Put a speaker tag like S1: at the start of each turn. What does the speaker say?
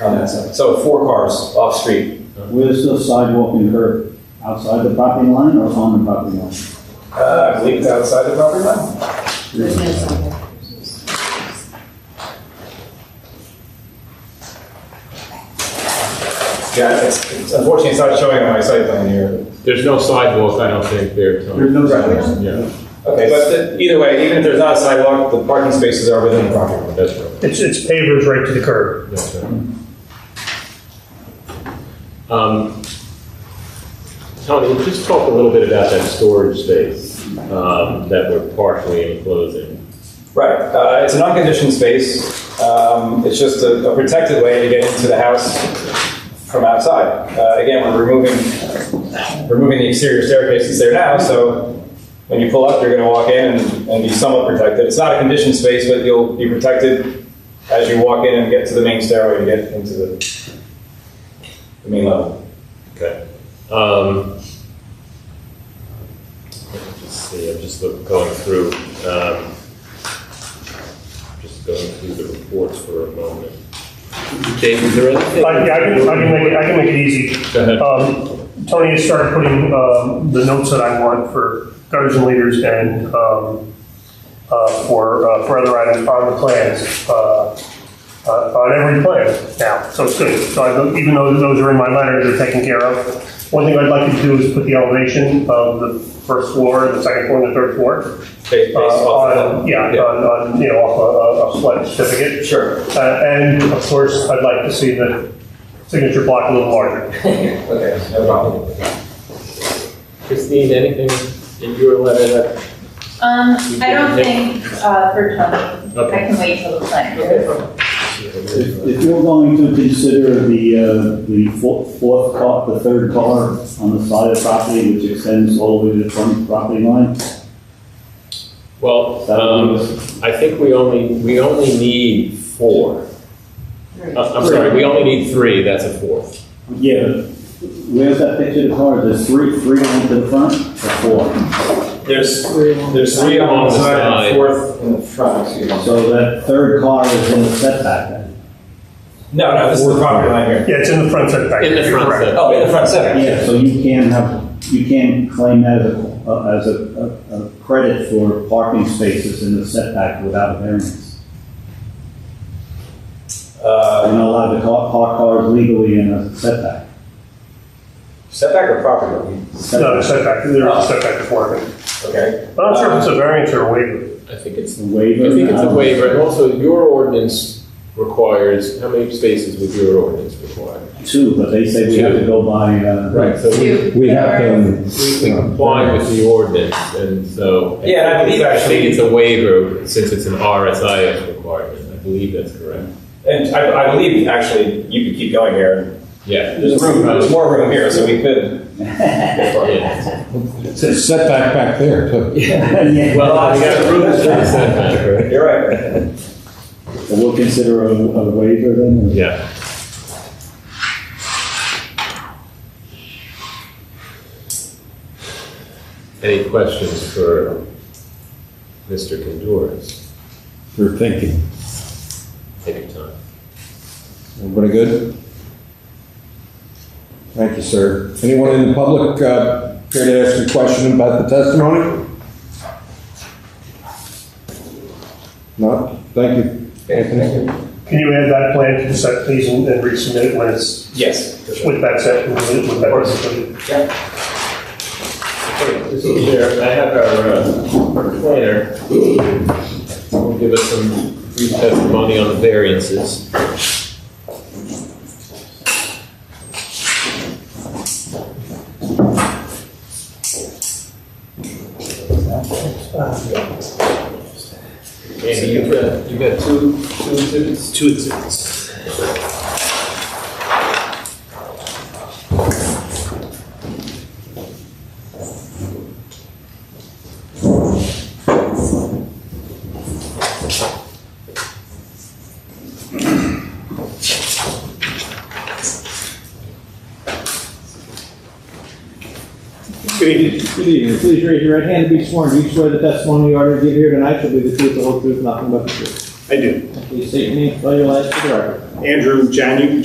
S1: on that side. So four cars off street.
S2: Where's the sidewalk and curb? Outside the property line or on the property line?
S1: Uh, I believe it's outside the property line.
S3: There's no
S4: Um,
S3: sidewalk.
S1: Yeah, it's, it's- unfortunately, it's not showing on my site plan here.
S5: There's no sidewalk, I don't think, there, Tony.
S2: no
S1: sidewalk.
S5: Yeah,
S1: Okay, but the- either way, even if there's not a sidewalk, the parking spaces are within the property line.
S5: that's right,
S6: It's, it's pavers right to the curb.
S5: that's right. Um, Tony, just talk a little bit about that storage space um, that we're partially enclosing.
S1: Right, uh, it's an unconditioned space. Um, it's just a, a protected way to get into the house from outside. Uh, again, we're removing removing the exterior staircase that's there now, so when you pull up, you're going to walk in and, and be somewhat protected. It's not a conditioned space, but you'll be protected as you walk in and get to the main stairway and get into the, the main level.
S5: Okay. Um, let me Just see, I'm just look- going through, um, just going through the reports for a moment. Dave, is there anything?
S6: I, yeah, I can, I can make it, I can make it easy.
S5: Go ahead.
S6: Um, Tony has started putting, um, the notes that I want for gutters and leaders and, um, uh, for, uh, for other items on the plans, uh, uh, on every plan now, so it's good. So I, don't- even though those are in my letter, they're taken care of. One thing I'd like to do is put the elevation of the first floor, the second floor, and the third floor.
S1: Based, based
S6: uh,
S1: off of
S6: on,
S1: that.
S6: yeah, on, on, you know, off a, a- a flight certificate.
S1: Sure.
S6: Uh, And of course, I'd like to see the signature block a little larger.
S1: Okay, no problem.
S5: Christine, anything in your letter that?
S4: Um, I don't think, uh, for Tony, I can wait till the planning. board.
S2: If if you're going to consider the, uh, the fo- fourth car, the third car on the side of the property, which extends all the way to the front of the property line,
S5: Well,
S2: that
S5: um,
S2: would be-
S5: I think we only, we only need four.
S4: Three.
S5: Uh, I'm sorry, we only need three, that's a fourth.
S2: Yeah, but where's that picture of the car? There's three, three on the front or four?
S1: There's, there's three on the side and fourth in the front, excuse me.
S2: So that third car is in the setback then?
S1: No, no, this is the property line here.
S6: Yeah, it's in the front setback.
S5: In the front
S6: Correct.
S5: setback.
S1: Oh, in the front setback.
S2: Yeah, so you can have, you can claim that as a, uh, as a, a- a credit for parking spaces in the setback without a variance.
S1: Uh,
S2: You're not allowed to ca- park cars legally in a setback.
S1: setback or property line?
S6: No, the setback, there's a setback before it.
S1: Okay.
S6: I'm not sure if it's a variance or a waiver.
S5: I think it's,
S2: A waiver.
S5: I think it's a
S2: uh,
S5: waiver, and also your ordinance requires, how many spaces would your ordinance require?
S2: Two, but they say we have to go by, uh.
S5: So we,
S4: Two.
S7: We have
S4: Or-
S5: we
S7: them.
S5: we comply with the ordinance, and so.
S1: Yeah, and I believe
S5: I
S1: actually-
S5: think it's a waiver, since it's an RSIS requirement, I believe that's correct.
S1: And I, I believe, actually, you could keep going here.
S5: Yeah.
S1: There's room, there's more room here, so we could.
S5: Yeah.
S7: It's a setback back there, too.
S2: Yeah.
S5: Well, we got room for the setback, right?
S1: You're right.
S2: So we'll consider a, a waiver then? or-
S5: Yeah. Any questions for Mr. Condoras?
S7: We're thinking.
S5: Take your time.
S7: Everybody good? Thank you, sir. Anyone in the public uh, care to ask a question about the testimony? No? Thank you. Anthony?
S6: Can you add that plan to the set, please, and and resubmit it when it's,
S1: Yes. for sure.
S6: with that set, with with that. resolution?
S5: This is there, I have our uh, planner. Will give us some brief testimony on the variances. Andy, you've got, you've got two, two exhibits? Two exhibits.
S8: Good evening. Good evening. Please raise your right hand and be sworn. Do you swear the testimony you are to give here tonight shall be the truth, the whole truth, nothing but the truth?
S9: I do.
S8: Please state your name, spell your last for the record.
S9: Andrew Janu,